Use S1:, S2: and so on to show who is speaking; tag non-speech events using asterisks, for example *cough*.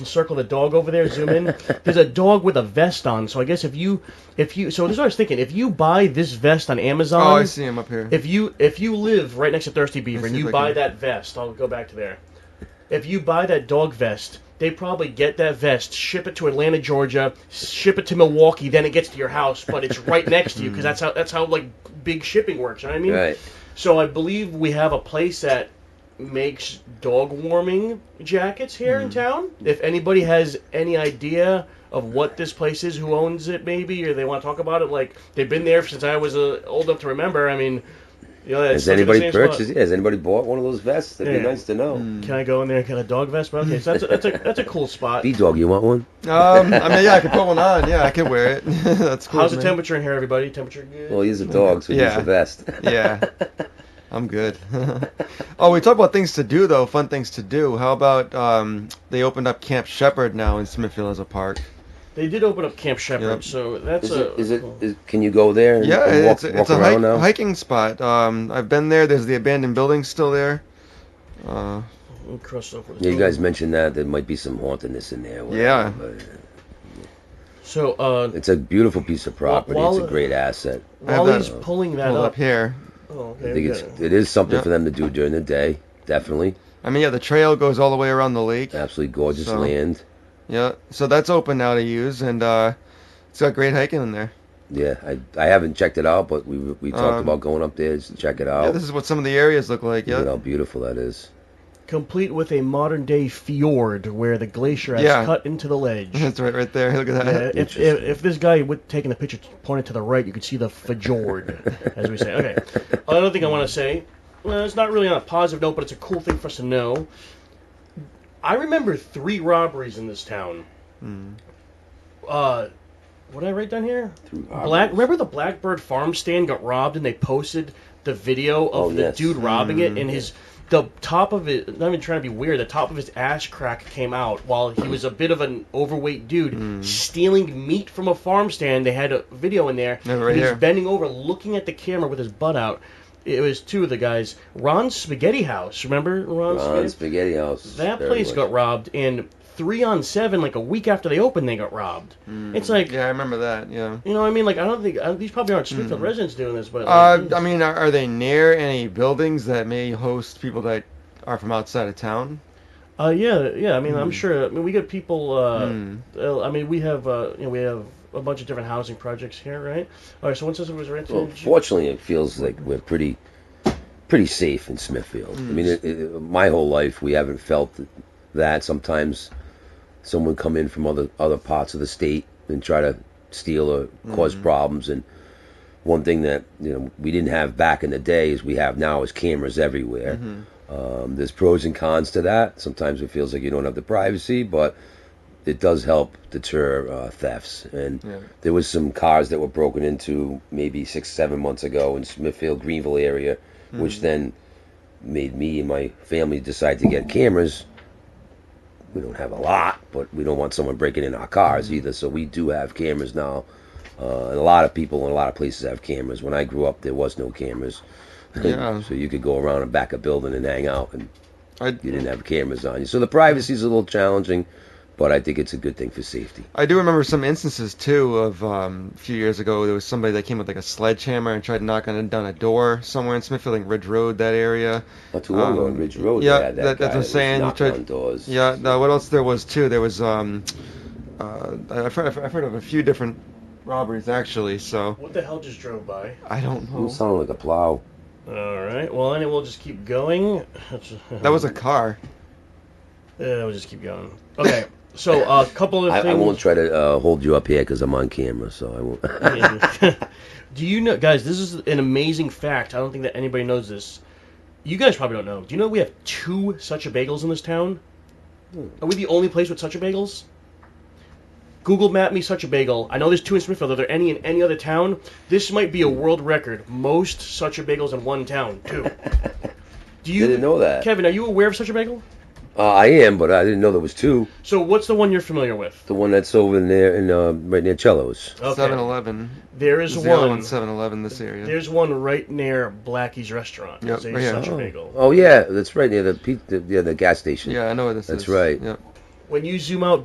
S1: circle the dog over there. Zoom
S2: *laughs*
S1: in. There's a dog with a vest on. So I guess if you, if you, so this is what I was thinking. If you buy this vest on Amazon,
S2: Oh, I see him up here.
S1: If you if you live right next to Thirsty Beaver
S2: me
S1: and
S2: see if
S1: you
S2: I
S1: buy
S2: can-
S1: that vest, I'll go back to there. If you buy that dog vest, they probably get that vest, ship it to Atlanta, Georgia, ship it to Milwaukee, then it gets to your house, but it's
S2: *laughs*
S1: right next to you
S2: Mm.
S1: because that's how that's how like big shipping works. You know what I mean?
S3: Right.
S1: So I believe we have a place that makes dog warming jackets here
S3: Hmm.
S1: in town. If anybody has any idea of what this place is, who owns it, maybe, or they want to talk about it, like they've been there since I was uh, old enough to remember. I mean, you know, that's
S3: Has
S1: such a good
S3: anybody
S1: same spot.
S3: purchased? Yeah, has anybody bought one of those vests? That'd be
S1: Yeah.
S3: nice to know.
S2: Hmm.
S1: Can I go in there and get a dog vest? But okay, so that's a,
S3: *laughs*
S1: that's a that's a cool spot.
S3: B dog, you want one?
S2: Um, I mean, yeah, I could put one on. Yeah, I could wear it. *laughs* That's cool.
S1: How's the
S2: man.
S1: temperature in here, everybody? Temperature good.
S3: Well, he's a dog, so he's
S2: Yeah. *laughs*
S3: a vest.
S2: Yeah, I'm good. *laughs* oh, we talked about things to do though. Fun things to do. How about um, they opened up Camp Shepherd now in Smithfield as a park?
S1: They did open up Camp Shepherd,
S2: Yep.
S1: so that's
S3: Is
S1: a
S3: it? Is it? Is, can you go there? And,
S2: Yeah,
S3: and walk,
S2: it's a,
S3: walk
S2: it's a
S3: around
S2: hike,
S3: now.
S2: hiking spot. Um, I've been there. There's the abandoned building still there. Uh,
S1: Let me cross over.
S3: Yeah, you guys mentioned that there might be some hauntedness in there.
S2: Yeah.
S3: but
S1: So uh,
S3: it's a beautiful piece of property. it's
S1: while-
S3: a great asset.
S2: I have that,
S1: Wally's
S3: uh,
S1: pulling that
S2: hold
S1: up.
S2: up here.
S1: Oh, okay,
S3: I think
S1: we
S3: it's
S1: got it.
S3: it is something
S2: Yeah.
S3: for them to do during the day. Definitely,
S2: I mean, yeah, the trail goes all the way around the lake.
S3: absolutely gorgeous
S2: So-
S3: land.
S2: Yeah, so that's open now to use, and uh, it's got great hiking in there.
S3: Yeah, I, I haven't checked it out, but we we talked
S2: Um,
S3: about going up there to check it out.
S2: Yeah, this is what some of the areas look like.
S3: Look at
S2: Yeah,
S3: how beautiful that is.
S1: complete with a modern day fjord where the glacier has
S2: Yeah.
S1: cut into the ledge.
S2: *laughs* that's right, right there. Look at
S1: Yeah,
S2: that.
S1: if, if, if this guy would taking the picture pointed to the right, you could see the fjord, as we say. Okay. Another thing I want to say, well, it's not really on a positive note, but it's a cool thing for us to know. I remember three robberies in this town. Uh, what did I write down here? Black. Remember the Blackbird farm stand got robbed, and they posted the video of
S3: Oh,
S1: the
S3: yes.
S1: dude robbing it,
S2: Hmm.
S1: and his the top of it. Not even trying to be weird. The top of his ass crack came out while he was a bit of an overweight dude
S2: Hmm.
S1: stealing meat from a farm stand. They had a video in there.
S2: Yeah, right
S1: and he was
S2: here.
S1: bending over, looking at the camera with his butt out. It was two of the guys. Ron's Spaghetti House. Remember Ron's Spaghetti?
S3: On Uh, Spaghetti House.
S1: That
S3: Very
S1: place
S3: much.
S1: got robbed, and three on seven, like a week after they opened, they got robbed.
S2: Hmm.
S1: It's like
S2: Yeah, I remember that. Yeah.
S1: you know, what I mean, like I don't think uh, these probably aren't Springfield
S3: Hmm.
S1: residents doing this, but
S2: Uh,
S1: like,
S2: I mean, are, are they near any buildings that may host people that are from outside of town?
S1: uh, yeah, yeah. I mean,
S3: Hmm.
S1: I'm sure. I mean, we get people. Uh, uh, I mean, we have uh, you know, we have a bunch of different housing projects here, right? All right. So once this was rented,
S3: Well, fortunately, it feels like we're pretty, pretty safe in Smithfield. I mean,
S1: Mm.
S3: it, it, my whole life we haven't felt that. Sometimes someone come in from other other parts of the state and try to steal or cause
S1: Mm-hmm.
S3: problems. And one thing that you know we didn't have back in the day is we have now is cameras everywhere.
S1: Mm-hmm.
S3: Um, there's pros and cons to that. Sometimes it feels like you don't have the privacy, but it does help deter uh, thefts. And
S2: Yeah.
S3: there was some cars that were broken into maybe six, seven months ago in Smithfield, Greenville area, which then made me and my family decide to get cameras. We don't have a lot, but we don't want someone breaking in our cars either. So we do have cameras now. Uh, and a lot of people in a lot of places have cameras. When I grew up, there was no cameras. *laughs*
S2: Yeah.
S3: so you could go around and back a building and hang out and
S2: I,
S3: you didn't have cameras on you. So the privacy is a little challenging, but I think it's a good thing for safety.
S2: I do remember some instances too of um, a few years ago. There was somebody that came with like a sledgehammer and tried knocking it down a door somewhere in Smithfield, like Ridge Road, that area.
S3: Not too long ago on
S2: Um,
S3: Ridge Road,
S2: yeah,
S3: they had that
S2: that- that's
S3: guy
S2: what I'm
S3: that was
S2: saying. You
S3: knocking
S2: tried-
S3: on doors.
S2: Yeah. No, what else there was too? There was um, uh, I've heard I've heard of a few different robberies actually. So
S1: what the hell just drove by?
S2: I don't
S3: Who
S2: know.
S3: sounded like a plow?
S1: All right. Well, and we'll just keep going. *laughs*
S2: That was a car.
S1: Yeah, we'll just keep going. Okay. So a couple of
S3: *laughs* I,
S1: things.
S3: I won't try to uh, hold you up here because I'm on camera, so I won't. *laughs*
S1: do you know, guys? This is an amazing fact. I don't think that anybody knows this. You guys probably don't know. Do you know we have two such a bagels in this town?
S3: Hmm.
S1: Are we the only place with such a bagels? Google map me such a bagel. I know there's two in Smithfield. Are there any in any other town? This might be a world record. Most such a bagels in one town. Two.
S3: *laughs*
S1: Do you
S3: Didn't know that.
S1: Kevin? Are you aware of such a bagel?
S3: uh, I am, but I didn't know there was two.
S1: So what's the one you're familiar with?
S3: The one that's over in there, in, uh, right near Cello's.
S2: Seven Eleven.
S1: There is
S2: The other
S1: one.
S2: one, Seven Eleven. This area.
S1: There's one right near Blackie's restaurant.
S2: Yep,
S1: It's a
S2: right here.
S1: such a
S3: Oh.
S1: bagel.
S3: Oh yeah, that's right near the, pe- the yeah the gas station.
S2: yeah, I know where this
S3: That's
S2: is.
S3: right.
S2: Yep.
S1: when you zoom out